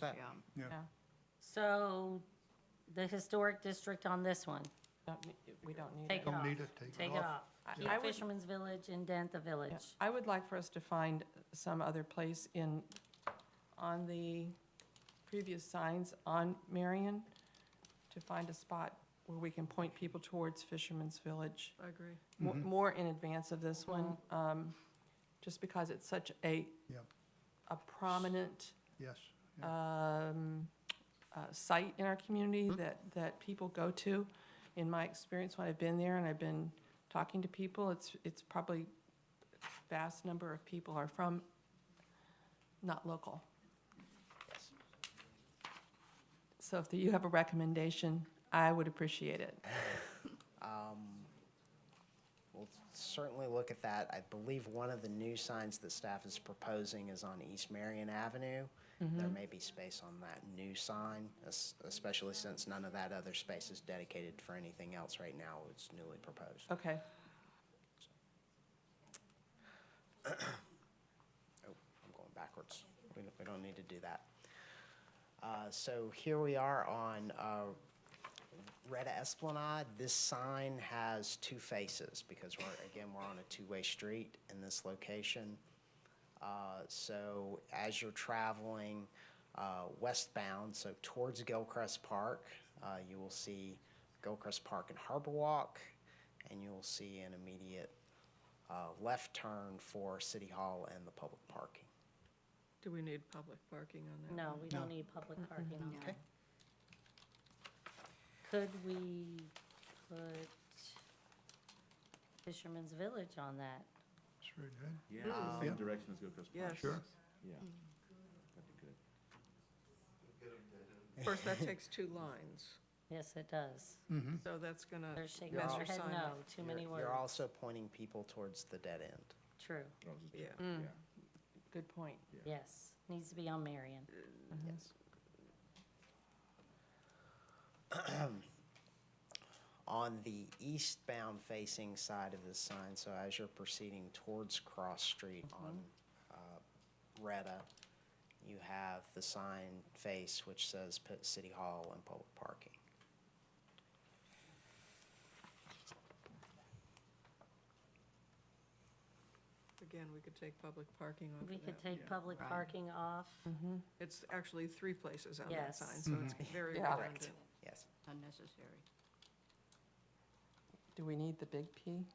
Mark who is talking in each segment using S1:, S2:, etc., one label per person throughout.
S1: that.
S2: Yeah.
S3: yeah.
S4: So the historic district on this one,
S5: Don't ne- We don't need
S4: take
S5: it.
S4: it off.
S3: Don't need it, take it
S4: Take it
S3: off.
S4: off.
S5: I-
S4: Keep
S5: I would-
S4: Fisherman's Village, indent the
S5: Yeah.
S4: village.
S5: I would like for us to find some other place in, on the previous signs on Marion, to find a spot where we can point people towards Fisherman's Village.
S2: I agree. Uh-huh.
S5: mo- more in advance of this one, um, just because it's such a,
S3: Yep.
S5: a prominent
S3: Yes,
S5: um, uh, site in our community that, that people go to. In my experience, when I've been there and I've been talking to people, it's, it's probably vast number of people are from, not local. So if you have a recommendation, I would appreciate it.
S6: We'll certainly look at that. I believe one of the new signs that staff is proposing is on East Marion Avenue. There may be space on that new sign, es- especially since none of that other space is dedicated for anything else right now. It's newly proposed.
S5: Okay.
S6: Oh, I'm going backwards. We don't, we don't need to do that. Uh, so here we are on, uh, Retta Esplanade. This sign has two faces because we're, again, we're on a two-way street in this location. Uh, so as you're traveling, uh, westbound, so towards Gilcrest Park, uh, you will see Gilcrest Park and Harbor Walk, and you will see an immediate, uh, left turn for City Hall and the public parking.
S2: Do we need public parking on that?
S4: No, we don't need public parking on that. Could we put Fisherman's Village on that?
S3: it's very good.
S7: Yeah, same direction as Gilchrist Park.
S2: Yes. Sure.
S7: Yeah. That'd be good.
S2: Of course, that takes two lines,
S4: Yes, it does.
S2: so that's gonna
S4: They're
S2: mess
S4: shaking their
S2: your
S4: head
S2: sign
S4: no,
S2: up.
S4: too many
S6: You're-
S4: words.
S6: You're also pointing people towards the dead end.
S4: True,
S7: Or I'll just do
S2: Yeah,
S7: it. Yeah.
S5: Good point.
S4: yes. Needs to be on Marion.
S6: Yes. On the eastbound facing side of the sign, so as you're proceeding towards Cross Street
S4: Mm-hmm.
S6: on uh, Retta, you have the sign face which says Pitt City Hall and Public Parking.
S2: again, we could take public parking off
S4: We
S2: of
S4: could
S2: that.
S4: take public parking off.
S2: It's actually three places on that
S4: Yes.
S2: sign, so it's very
S5: Yeah.
S2: redundant.
S6: Yes.
S8: unnecessary.
S5: Do we need the big P?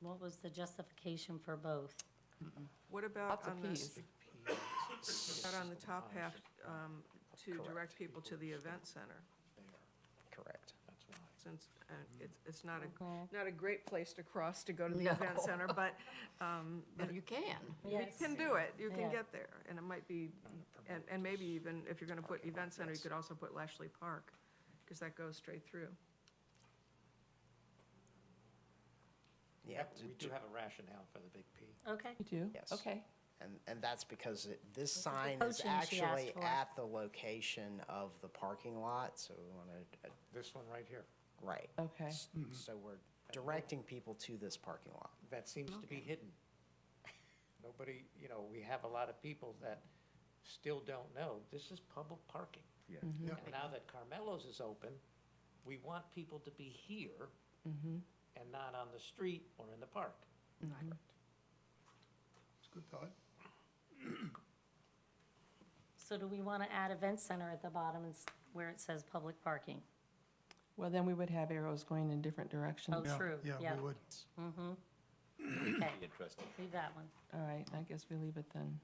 S4: What was the justification for both?
S2: What about
S5: Lots
S2: on
S5: of
S2: this,
S5: Ps.
S2: about on the top half, um, to direct people to the event center?
S6: Correct.
S2: Since, uh,
S7: Mm-hmm.
S2: it's, it's not a, not a great place to cross to go to the event center, but, um,
S8: But you can.
S2: You can do it, you
S4: Yeah.
S2: can get there, and it might be, and, and maybe even, if you're gonna put event center, you could also put Lashley Park, because that goes straight through.
S6: Yeah.
S9: We do have a rationale for the big P.
S4: Okay,
S5: You do?
S6: Yes.
S5: Okay.
S6: And, and that's because it, this
S4: the
S6: sign is
S4: potion she asked
S6: actually
S4: for.
S6: at the location of the parking lot, so we want to,
S9: This one right here.
S6: right.
S5: Okay.
S6: S- So we're directing people to this parking lot.
S9: That seems to be hidden. Nobody, you know, we have a lot of people that still don't know, this is public parking.
S7: Yeah.
S3: Yeah.
S9: And now that Carmelo's is open, we want people to be here and not on the street or in the park.
S3: It's a good thought.
S4: so do we want to add event center at the bottom and s- where it says public parking?
S5: Well, then we would have arrows going in different directions.
S4: Oh,
S5: All
S3: Yeah,
S4: True,
S3: Yeah,
S4: yeah.
S3: we would.
S4: Mm-hmm. Okay,
S7: Interesting.
S4: leave that one.
S5: right, I guess we leave it then.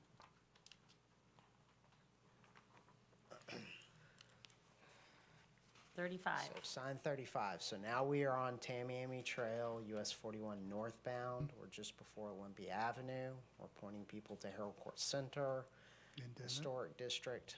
S4: Thirty-five.
S6: So sign thirty-five, so now we are on Tamiami Trail, US forty-one northbound, we're just before Olympia Avenue, we're pointing people to Harold Court Center,
S3: Indent it.
S6: Historic District,